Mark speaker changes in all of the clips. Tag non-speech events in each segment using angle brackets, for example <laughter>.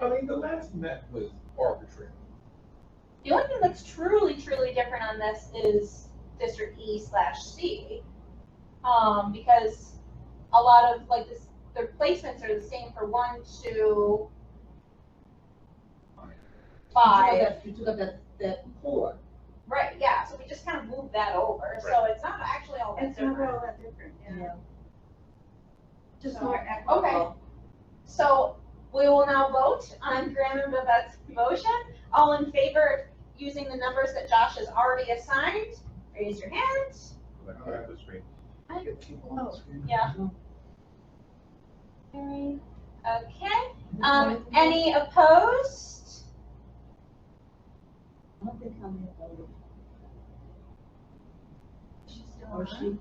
Speaker 1: I mean, the last net was arbitrary.
Speaker 2: The only thing that's truly, truly different on this is District E slash C. Um, because a lot of, like, this, their placements are the same for one, two,
Speaker 3: You took
Speaker 2: five.
Speaker 3: up that- You took up that, that four.
Speaker 2: Right, yeah, so we just kind of moved that over, so it's not actually all that
Speaker 4: It's not
Speaker 2: different.
Speaker 4: all that different, yeah.
Speaker 3: Yeah.
Speaker 4: Just
Speaker 2: So,
Speaker 4: more equitable.
Speaker 2: So we will now vote on Graham and Babette's motion. All in favor of using the numbers that Josh has already assigned, raise your hand.
Speaker 5: Like, I have the screen.
Speaker 4: Oh.
Speaker 2: Yeah. Okay, um, any opposed?
Speaker 3: I don't think I'm gonna vote. Or she.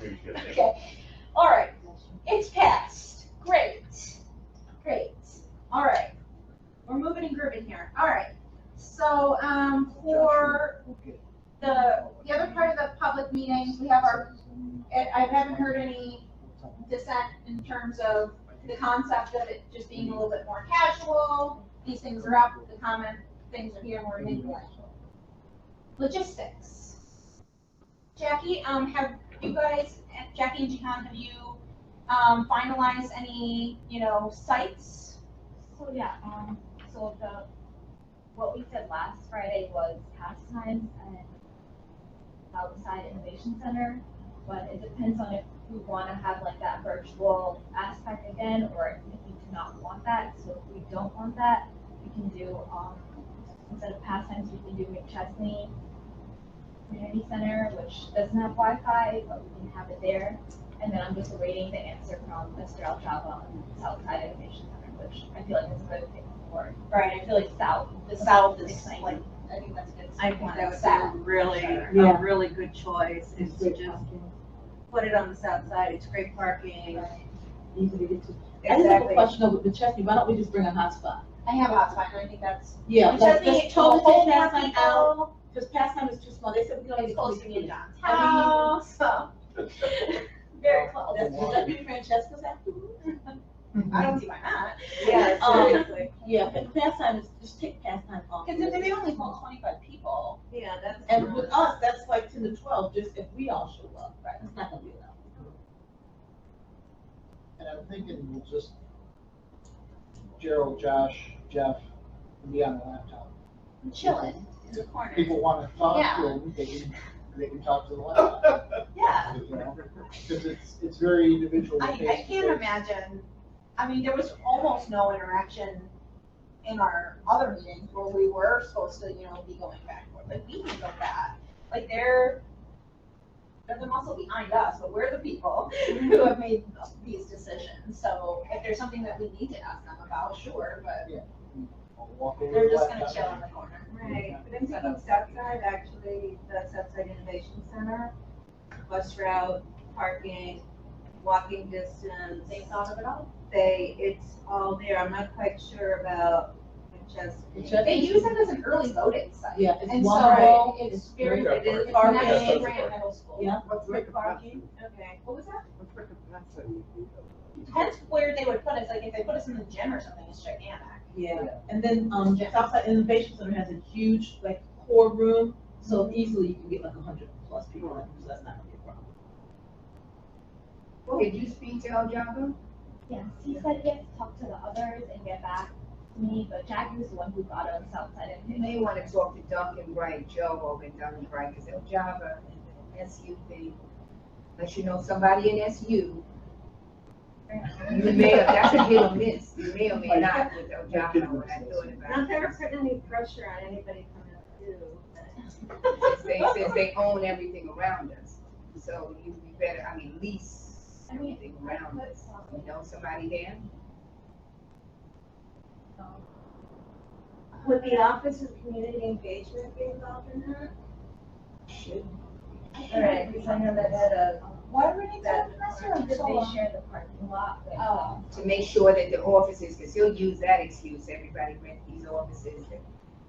Speaker 5: Maybe she has-
Speaker 2: Okay, all right,
Speaker 3: Uh-huh.
Speaker 2: it's passed. Great, great. All right, we're moving and grooving here. All right, so, um, for the, the other part of the public meeting, we have our, I I haven't heard any dissent in terms of the concept of it just being a little bit more casual. These things are up, the comment, things are here, and we're
Speaker 6: Mm-hmm.
Speaker 2: gonna do it. Logistics. Jackie, um, have you guys, Jackie and Jihan, have you, um, finalized any, you know, sites?
Speaker 7: So yeah, um, so the, what we said last Friday was pastimes and outside innovation center, but it depends on if we wanna have like that virtual aspect again, or if we do not want that, so if we don't want that, we can do, um, instead of pastimes, we can do McChesney Community Center, which doesn't have Wi-Fi, but we can have it there. And then I'm just awaiting the answer from Mr. El Chavo on Southside Innovation Center, which I feel like is a good thing for,
Speaker 2: Right.
Speaker 7: I feel like South.
Speaker 2: The South is
Speaker 7: Exciting.
Speaker 2: like, I think that's a good.
Speaker 8: I think that would be
Speaker 2: South.
Speaker 8: a really,
Speaker 3: Yeah.
Speaker 8: a really good choice, is to just put it on the south side, it's great parking,
Speaker 3: Easy to get to. I just have a
Speaker 8: exactly.
Speaker 3: question over the Chesney, why don't we just bring a hotspot?
Speaker 2: I have hotspot, and I think that's.
Speaker 3: Yeah,
Speaker 2: Which
Speaker 3: let's,
Speaker 2: I think
Speaker 3: let's
Speaker 2: it's a
Speaker 3: totally
Speaker 2: whole
Speaker 3: take pastime
Speaker 2: parking
Speaker 3: out,
Speaker 2: out,
Speaker 3: because pastime is too small, they said we can only.
Speaker 2: it's
Speaker 3: do
Speaker 2: close to
Speaker 3: three
Speaker 2: me and
Speaker 3: kids.
Speaker 2: John's
Speaker 3: I
Speaker 2: house,
Speaker 7: <laughs>
Speaker 2: so. Very close.
Speaker 3: That's, would that be Francesca's after?
Speaker 2: I don't see why not.
Speaker 8: Yeah,
Speaker 3: Um,
Speaker 8: seriously,
Speaker 3: Yeah, but pastime is, just take pastime off.
Speaker 2: Because if they only hold twenty-five people.
Speaker 8: yeah, that's.
Speaker 3: And with us, that's like ten to twelve, just if we all show up, right, it's not gonna be enough.
Speaker 6: And I'm thinking we'll just, Gerald, Josh, Jeff, be on the laptop.
Speaker 2: Chilling in the corner.
Speaker 6: People wanna talk to
Speaker 2: Yeah.
Speaker 6: them, they can, they can talk to the laptop,
Speaker 2: Yeah,
Speaker 6: you know? Cause it's, it's very individual.
Speaker 2: I, I can't imagine, I mean, there was almost no interaction in our other meetings where we were supposed to, you know, be going back and forth, like, we can go back. Like, they're, they're the muscle behind us, but we're the people <laughs> who have made these decisions, so if there's something that we need to ask them about, sure, but they're just gonna chill in the corner.
Speaker 4: Right, but I'm thinking Southside, actually, the Southside Innovation Center, bus route, parking, walking distance.
Speaker 2: They thought of it all.
Speaker 4: They, it's all there, I'm not quite sure about Winchester.
Speaker 3: Just-
Speaker 2: They use it as an early voting site.
Speaker 3: Yeah, it's
Speaker 2: And
Speaker 3: one
Speaker 2: so
Speaker 3: row,
Speaker 2: it's
Speaker 3: it's
Speaker 2: very,
Speaker 3: very,
Speaker 5: Yeah,
Speaker 2: it is, it's
Speaker 3: parking.
Speaker 2: next
Speaker 5: Yeah,
Speaker 2: to
Speaker 5: that's
Speaker 2: Grant
Speaker 5: right.
Speaker 2: Middle School.
Speaker 3: yeah,
Speaker 2: What's the parking?
Speaker 4: Okay.
Speaker 2: What was that? Depends where they would put us, like if they put us in the gym or something, it's gigantic.
Speaker 3: yeah. And then, um, Southside Innovation Center has a huge, like, core room, so
Speaker 2: Mm-hmm.
Speaker 3: easily you can get like a hundred plus people in, so that's not gonna be a problem.
Speaker 4: Did you speak to El Jago?
Speaker 7: Yes, he said he has to talk to the others and get back to me, but Jackie was the one who brought up Southside
Speaker 4: You
Speaker 7: and
Speaker 4: may want to talk to Duncan Wright, Joe over in Duncan Wright, because El Jago and SU thing, unless you know somebody in SU. You may, that's a hit or miss, you may or may not with El Jago, when I thought about it.
Speaker 8: putting any pressure on anybody coming up too.
Speaker 4: Since they, since they own everything around us, so you be better, I mean, lease
Speaker 7: I mean,
Speaker 4: everything
Speaker 7: I
Speaker 4: around
Speaker 7: put
Speaker 4: us.
Speaker 7: some,
Speaker 4: You know somebody there?
Speaker 7: um,
Speaker 8: Would the Office of Community Engagement be involved in that?
Speaker 4: Alright, because I know that had a,
Speaker 2: Why do we need
Speaker 4: That-
Speaker 2: classroom
Speaker 7: Did they share the parking lot with?
Speaker 2: Oh,
Speaker 4: to make sure that the offices, because he'll use that excuse, everybody rent these offices that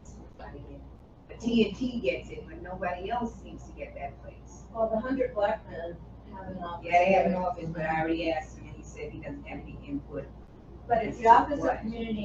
Speaker 4: somebody in. But TNT gets it, but nobody else seems to get that place.
Speaker 8: Well, the hundred black men have an office.
Speaker 4: Yeah, they have an office, but I already asked him, and he said he doesn't have any input.
Speaker 8: But it's the Office
Speaker 4: What?
Speaker 8: of Community